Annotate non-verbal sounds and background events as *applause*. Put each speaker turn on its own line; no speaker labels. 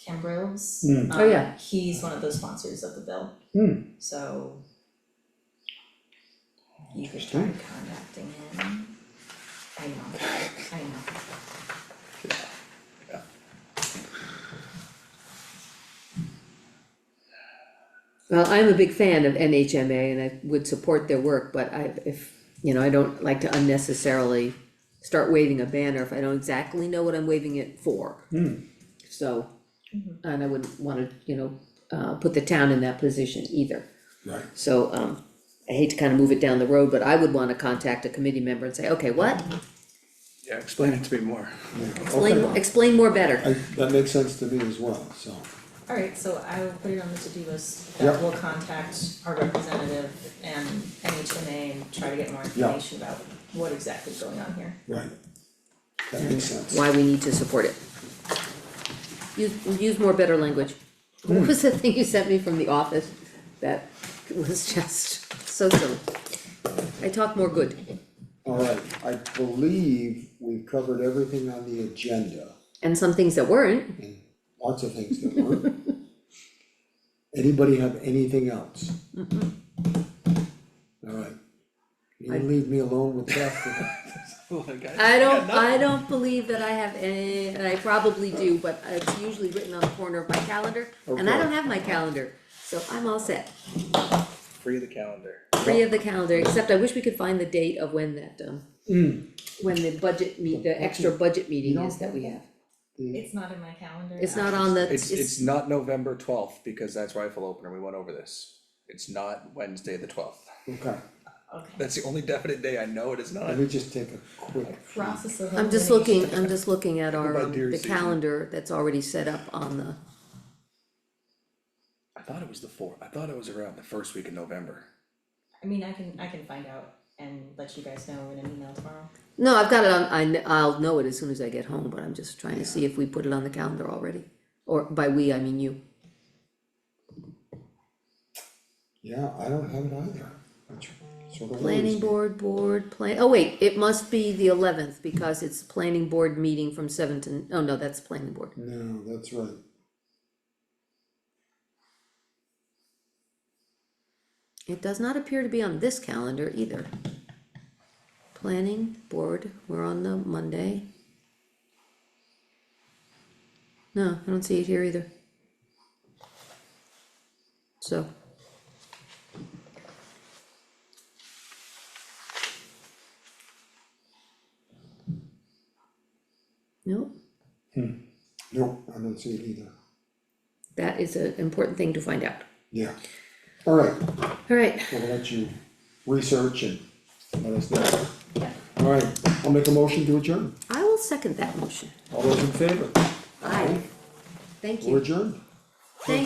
Cambrils.
Hmm.
Um,
Oh, yeah.
He's one of the sponsors of the bill.
Hmm.
So. You could try contacting him. I know, I know.
Well, I'm a big fan of NHMA and I would support their work, but I, if, you know, I don't like to unnecessarily start waving a banner if I don't exactly know what I'm waving it for.
Hmm.
So,
Mhm.
and I wouldn't wanna, you know, uh, put the town in that position either.
Right.
So, um, I hate to kind of move it down the road, but I would wanna contact a committee member and say, okay, what?
Yeah, explain it to me
*laughs*
more.
Explain, explain more better.
I, that makes sense to me as well, so,
Alright, so I will put it on the to-do list,
Yeah.
that will contact our representative and NHMA and try to get more
Yeah.
information about what exactly is going on here.
right. That makes sense.
Why we need to support it. Use, use more better language.
Hmm.
What was the thing you sent me from the office that was just so silly? I talk more good,
Alright, I believe we've covered everything on the agenda,
and some things that weren't,
and lots of things that
*laughs*
weren't. Anybody have anything else? Alright. You gonna leave me alone
*laughs*
with that,
I don't, I don't believe that I have any, and I probably do, but it's usually written on the corner of my calendar,
Oh,
and I
Okay.
don't have my calendar, so I'm all set.
Free the calendar.
Free of the calendar, except I wish we could find the date of when that, um,
Hmm.
when the budget meet, the extra budget meeting is that we have.
It's not in my calendar.
It's not on the,
It's,
it's,
it's not November twelfth, because that's rifle opener, we went over this. It's not Wednesday the twelfth.
okay,
Okay,
That's the only definite day I know it is not.
let me just take a quick,
process of elimination.
I'm just looking, I'm just looking at our,
by
um,
deer
the
season.
calendar that's already set up on the,
I thought it was the fourth, I thought it was around the first week of November.
I mean, I can, I can find out and let you guys know in an email tomorrow.
no, I've got it on, I, kn- I'll know it as soon as I get home, but I'm just trying to see if we put it on the calendar already. Or by we, I mean you.
yeah, I don't have it either, which sort of worries
Planning
me.
board, board, plan, oh wait, it must be the eleventh because it's planning board meeting from seven to, oh no, that's planning board.
No, that's right,
It does not appear to be on this calendar either. Planning board, we're on the Monday. No, I don't see it here either. So. No,
no, I don't see it either,
that is an important thing to find out.
yeah, alright.
Alright,
we'll let you research and let us know.
Yeah.
Alright, I'll make a motion to adjourn.
I will second that motion.
All those in favor,
Aye. Thank
we're
you.
adjourned.
Thank